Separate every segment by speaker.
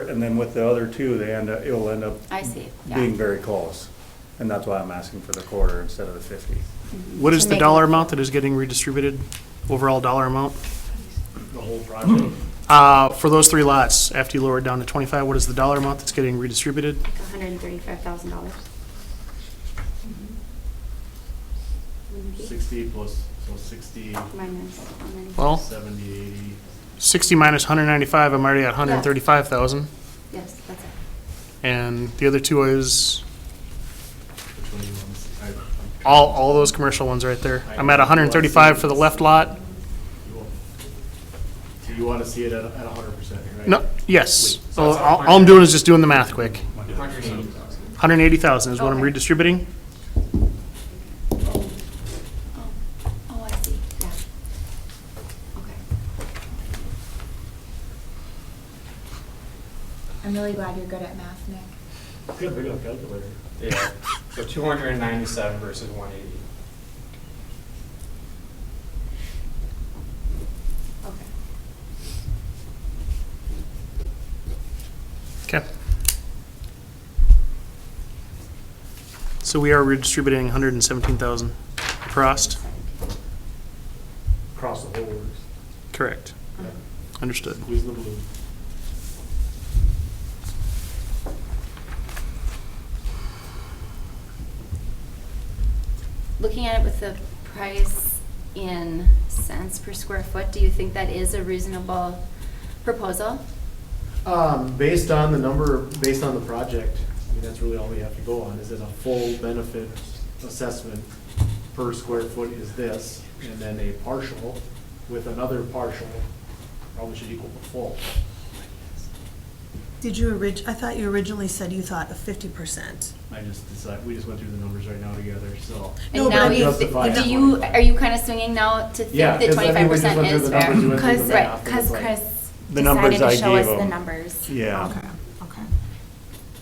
Speaker 1: and then with the other two, they end up, it'll end up
Speaker 2: I see, yeah.
Speaker 1: being very close. And that's why I'm asking for the quarter instead of the fifty.
Speaker 3: What is
Speaker 2: Mm-hmm. To
Speaker 3: the
Speaker 2: make
Speaker 3: dollar
Speaker 2: it-
Speaker 3: amount that is getting redistributed, overall dollar amount?
Speaker 1: The whole project?
Speaker 3: Uh, for those three lots, after you lower it down to twenty-five, what is the dollar amount that's getting redistributed?
Speaker 4: hundred and thirty-five thousand dollars.
Speaker 5: Sixty plus, so sixty,
Speaker 4: Minus one ninety.
Speaker 3: Well,
Speaker 5: seventy, eighty,
Speaker 3: sixty minus hundred ninety-five, I'm already at hundred and thirty-five thousand,
Speaker 4: Yes, that's it.
Speaker 3: and the other two is,
Speaker 5: which one do you want? to see? I- I-
Speaker 3: all, all those commercial ones right there. I'm at hundred and thirty-five for the left lot,
Speaker 5: you want- So you wanna see it at, at a hundred percent, right?
Speaker 3: no, yes, So all, all I'm doing is just doing the math quick. Hundred and eighty thousand is what I'm
Speaker 2: Okay.
Speaker 3: redistributing,
Speaker 4: Oh, oh, I see, yeah. Okay.
Speaker 2: I'm really glad you're good at math, Nick.
Speaker 5: Good, we got a calculator.
Speaker 6: Yeah, so two hundred and ninety-seven versus one eighty.
Speaker 4: Okay.
Speaker 3: okay. So we are redistributing hundred and seventeen thousand across,
Speaker 5: Across the whole works.
Speaker 3: correct, understood.
Speaker 5: Squeeze the blue.
Speaker 2: Looking at it with the price in cents per square foot, do you think that is a reasonable proposal?
Speaker 7: Um, based on the number, based on the project, I mean, that's really all we have to go on, is it a full benefit assessment per square foot is this, and then a partial with another partial, probably should equal the full.
Speaker 8: Did you orig, I thought you originally said you thought of fifty percent.
Speaker 5: I just decided, we just went through the numbers right now together, so.
Speaker 8: No,
Speaker 2: And
Speaker 8: but
Speaker 2: now
Speaker 8: I'm
Speaker 2: you,
Speaker 5: justifying
Speaker 2: do
Speaker 5: it.
Speaker 2: you, are you kind of swinging now to think
Speaker 5: Yeah,
Speaker 2: that
Speaker 5: 'cause I
Speaker 2: twenty-five
Speaker 5: mean, we just
Speaker 2: percent
Speaker 5: went through
Speaker 2: is
Speaker 5: the numbers, we
Speaker 2: fair?
Speaker 5: went through the
Speaker 2: Because,
Speaker 5: math, and it's like-
Speaker 2: Chris
Speaker 1: The numbers
Speaker 2: decided to
Speaker 1: I
Speaker 2: show us
Speaker 1: gave
Speaker 2: the
Speaker 1: him.
Speaker 2: numbers.
Speaker 1: Yeah.
Speaker 8: okay.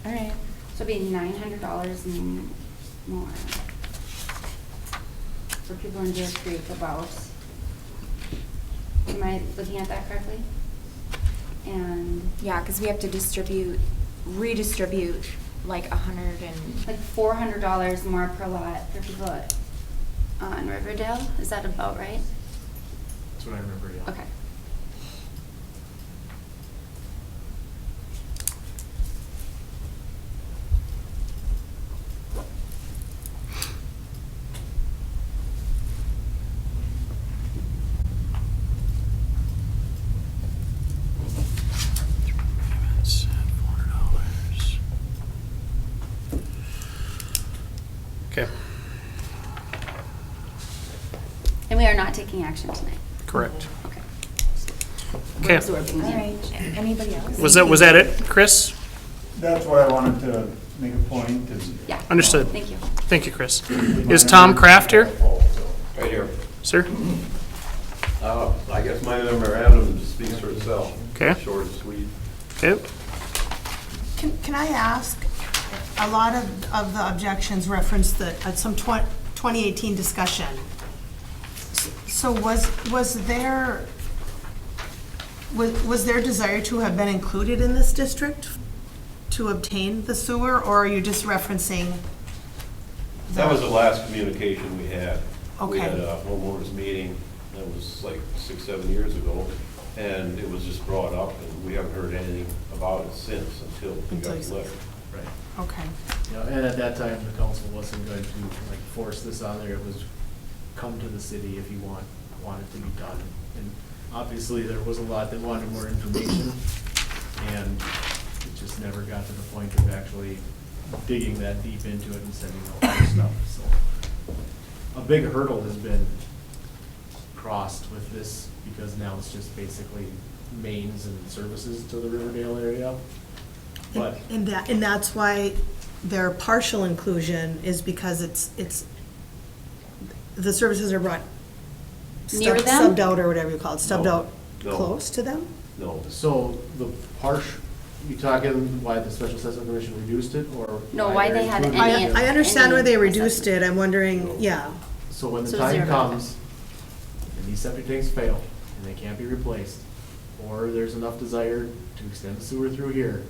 Speaker 2: All right, so it'll be nine hundred dollars and more for people in Deer Creek about. Am I looking at that correctly? And
Speaker 9: Yeah, because we have to distribute, redistribute like a hundred and,
Speaker 2: like four hundred dollars more per lot for people on Riverdale, is that about right?
Speaker 5: That's what I remember, yeah.
Speaker 2: Okay.
Speaker 3: Okay,
Speaker 2: And we are not taking action tonight,
Speaker 3: correct.
Speaker 2: okay. We're
Speaker 3: Okay,
Speaker 2: Absorbing
Speaker 9: all
Speaker 2: the
Speaker 9: right, anybody else?
Speaker 3: was that, was that it, Chris?
Speaker 1: That's why I wanted to make a point is.
Speaker 2: Yeah.
Speaker 3: Understood.
Speaker 2: Thank you.
Speaker 3: Thank you, Chris. Is Tom Kraft here,
Speaker 10: Right here.
Speaker 3: sir?
Speaker 10: Uh, I guess my memorandum speaks for itself.
Speaker 3: Okay.
Speaker 10: Short and sweet.
Speaker 3: Okay,
Speaker 8: Can, can I ask, a lot of, of the objections reference the, uh, some twen- 2018 discussion. S- So was, was there, was, was their desire to have been included in this district to obtain the sewer, or are you just referencing?
Speaker 10: That was the last communication we had.
Speaker 8: Okay.
Speaker 10: We had a homeowners meeting, that was like six, seven years ago, and it was just brought up, and we haven't heard anything about it since until we
Speaker 8: Until
Speaker 10: got
Speaker 8: you
Speaker 10: the
Speaker 8: said-
Speaker 10: letter.
Speaker 5: Right.
Speaker 8: Okay.
Speaker 7: Yeah, and at that time, the council wasn't going to like force this on there, it was come to the city if you want, want it to be done. And obviously, there was a lot that wanted more information, and it just never got to the point of actually digging that deep into it and sending out that stuff, so. A big hurdle has been crossed with this, because now it's just basically mains and services to the Riverdale area. But
Speaker 8: And that, and that's why their partial inclusion is because it's, it's, the services are brought.
Speaker 2: Near
Speaker 8: stubbed-
Speaker 2: them?
Speaker 8: Subbed out or whatever you call it, stubbed
Speaker 10: No,
Speaker 8: out
Speaker 10: no.
Speaker 8: close to them?
Speaker 10: No,
Speaker 7: So the partial, you talking why the special assessment commission reduced it or?
Speaker 2: No, why
Speaker 7: they're
Speaker 2: they had
Speaker 7: including
Speaker 2: any
Speaker 7: it?
Speaker 8: I, I understand where they
Speaker 2: Any
Speaker 8: reduced
Speaker 2: assessment.
Speaker 8: it, I'm wondering, yeah,
Speaker 7: So when the
Speaker 2: So
Speaker 7: time
Speaker 2: zero.
Speaker 7: comes, and these septic tanks fail and they can't be replaced, or there's enough desire to extend the sewer through here,